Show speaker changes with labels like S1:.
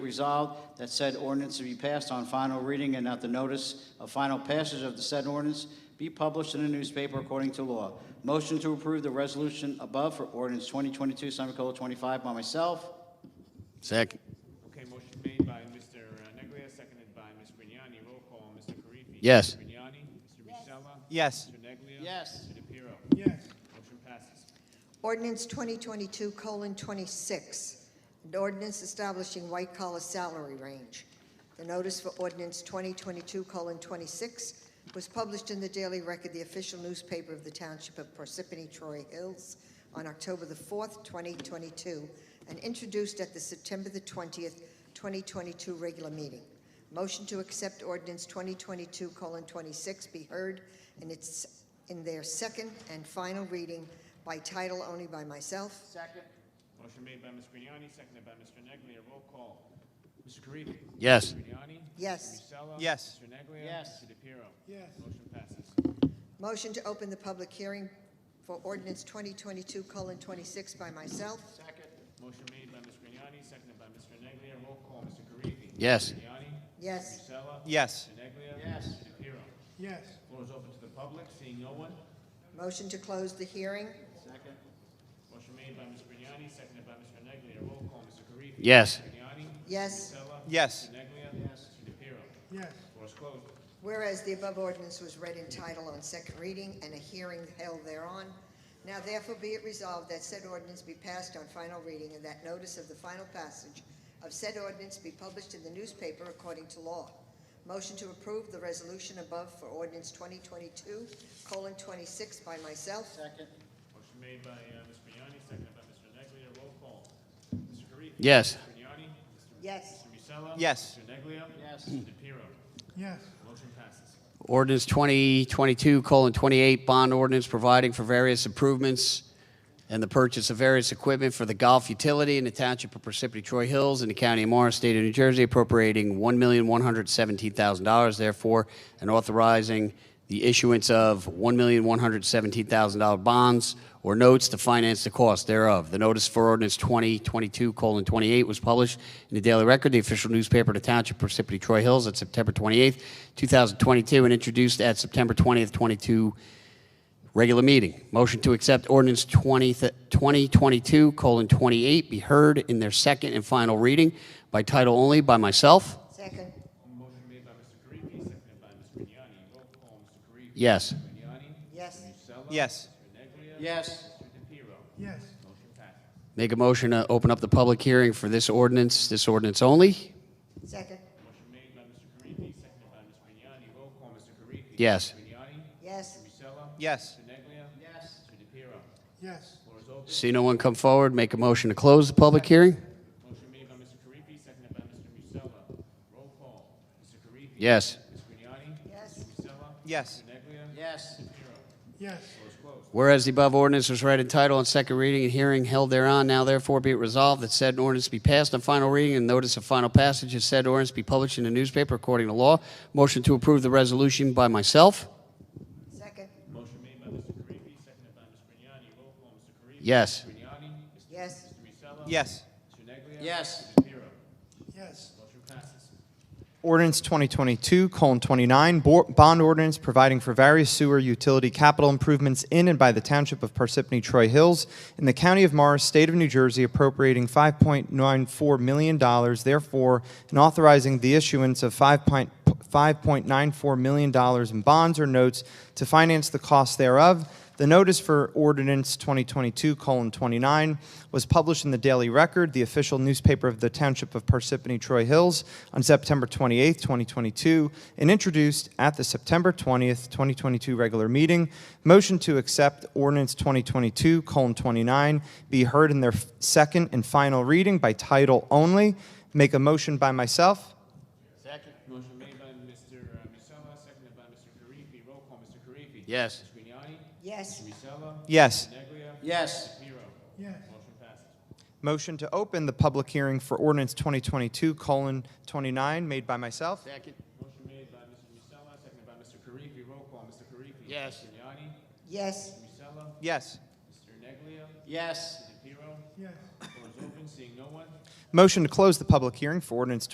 S1: resolved that said ordinance to be passed on final reading and that the notice of final passage of the said ordinance be published in a newspaper according to law. Motion to approve the resolution above for ordinance 2022, semicolon 25 by myself.
S2: Second.
S3: Okay, motion made by Mr. Neglia, seconded by Ms. Grignani. Roll call, Mr. Karifi.
S2: Yes.
S3: Mr. Grignani. Mr. Musella.
S4: Yes.
S3: Mr. Neglia.
S1: Yes.
S3: Mr. DePiero. Yes. Motion passes.
S5: Ordinance 2022:26, an ordinance establishing white-collar salary range. The notice for ordinance 2022:26 was published in the Daily Record, the official newspaper of the Township of Parsippany Troy Hills, on October the 4th, 2022, and introduced at the September the 20th, 2022 regular meeting. Motion to accept ordinance 2022:26 be heard in its, in their second and final reading by title only by myself.
S1: Second.
S3: Motion made by Ms. Grignani, seconded by Mr. Neglia. Roll call, Mr. Karifi.
S2: Yes.
S3: Mr. Grignani. Mr.
S5: Yes.
S3: Musella.
S4: Yes.
S3: Mr. Neglia.
S1: Yes.
S3: Mr. DePiero. Yes. Motion passes.
S5: Motion to open the public hearing for ordinance 2022:26 by myself.
S1: Second.
S3: Motion made by Ms. Grignani, seconded by Mr. Neglia. Roll call, Mr. Karifi.
S2: Yes.
S3: Grignani.
S5: Yes.
S3: Musella.
S4: Yes.
S3: Mr. Neglia.
S1: Yes.
S3: Mr. DePiero. Yes. Floor is open to the public. Seeing no one.
S5: Motion to close the hearing.
S1: Second.
S3: Motion made by Ms. Grignani, seconded by Mr. Neglia. Roll call, Mr. Karifi.
S2: Yes.
S3: Mr. Grignani.
S5: Yes.
S3: Musella.
S4: Yes.
S3: Mr. Neglia.
S1: Yes.
S3: Mr. DePiero. Yes. Floor is closed.
S5: Whereas the above ordinance was read in title on second reading and a hearing held thereon, now therefore be it resolved that said ordinance be passed on final reading and that notice of the final passage of said ordinance be published in the newspaper according to law. Motion to approve the resolution above for ordinance 2022:26 by myself.
S1: Second.
S3: Motion made by uh, Ms. Grignani, seconded by Mr. Neglia. Roll call. Mr. Karifi.
S2: Yes.
S3: Mr. Grignani. Mr.
S5: Yes.
S3: Mr. Musella.
S4: Yes.
S3: Mr. Neglia.
S1: Yes.
S3: Mr. DePiero. Yes. Motion passes.
S2: Ordinance 2022 colon 28, bond ordinance providing for various improvements and the purchase of various equipment for the golf utility in the township of Parsippany Troy Hills in the county of Morris, state of New Jersey, appropriating $1,117,000, therefore, and authorizing the issuance of $1,117,000 bonds or notes to finance the cost thereof. The notice for ordinance 2022:28 was published in the Daily Record, the official newspaper of the Township of Parsippany Troy Hills, on September 28, 2022, and introduced at September 20th, 22, regular meeting. Motion to accept ordinance 20 th- 2022:28 be heard in their second and final reading by title only by myself.
S5: Second.
S3: Motion made by Mr. Karifi, seconded by Ms. Grignani. Roll call, Mr. Karifi.
S2: Yes.
S3: Grignani.
S5: Yes.
S3: Musella.
S4: Yes.
S3: Mr. Neglia.
S1: Yes.
S3: Mr. DePiero. Yes. Motion passes.
S2: Make a motion to open up the public hearing for this ordinance, this ordinance only.
S5: Second.
S3: Motion made by Mr. Karifi, seconded by Ms. Grignani. Roll call, Mr. Karifi.
S2: Yes.
S3: Grignani.
S5: Yes.
S3: Musella.
S4: Yes.
S3: Mr. Neglia.
S1: Yes.
S3: Mr. DePiero.
S6: Yes,
S3: Floor is open.
S2: See no one come forward, make a motion to close the public hearing?
S3: Motion made by Mr. Karifi, seconded by Mr. Musella. Roll call, Mr. Karifi.
S2: Yes.
S3: Ms. Grignani.
S5: Yes.
S3: Mr. Musella.
S4: Yes.
S3: Mr. Neglia.
S1: Yes.
S3: Mr. DePiero.
S6: yes,
S3: Floor is closed.
S2: Whereas the above ordinance was read in title on second reading and hearing held thereon, now therefore be it resolved that said ordinance be passed on final reading and notice of final passage of said ordinance be published in the newspaper according to law. Motion to approve the resolution by myself?
S5: Second.
S3: Motion made by Mr. Karifi, seconded by Ms. Grignani. Roll call, Mr. Karifi.
S2: Yes.
S3: Mr. Grignani. Mr.
S5: Yes.
S3: Mr. Musella.
S4: Yes.
S3: Mr. Neglia.
S1: Yes.
S3: Mr. DePiero.
S6: yes,
S3: Motion passes.
S4: Ordinance 2022 colon 29, bo- bond ordinance providing for various sewer utility capital improvements in and by the Township of Parsippany Troy Hills in the County of Morris, State of New Jersey, appropriating $5.94 million, therefore, and authorizing the issuance of 5 point- $5.94 million in bonds or notes to finance the cost thereof. The notice for ordinance 2022 colon 29 was published in the Daily Record, the official newspaper of the Township of Parsippany Troy Hills, on September 28, 2022, and introduced at the September 20th, 2022 regular meeting. Motion to accept ordinance 2022 colon 29 be heard in their second and final reading by title only. Make a motion by myself.
S3: Motion made by Mr. Musella, seconded by Mr. Karifi. Roll call, Mr. Karifi.
S2: Yes.
S3: Ms. Grignani.
S5: Yes.
S3: Mr. Musella.
S4: Yes.
S3: Mr. Neglia.
S1: Yes.
S3: DePiero.
S6: yes,
S3: Motion passes.
S4: Motion to open the public hearing for ordinance 2022 colon 29 made by myself.
S2: Second.
S3: Motion made by Mr. Musella, seconded by Mr. Karifi. Roll call, Mr. Karifi.
S2: Yes.
S3: Mr. Grignani.
S5: Yes.
S3: Mr. Musella.
S4: Yes.
S3: Mr. Neglia.
S1: Yes.
S3: Mr. DePiero.
S6: yes,
S3: Floor is open, seeing no one.
S4: Motion to close the public hearing for ordinance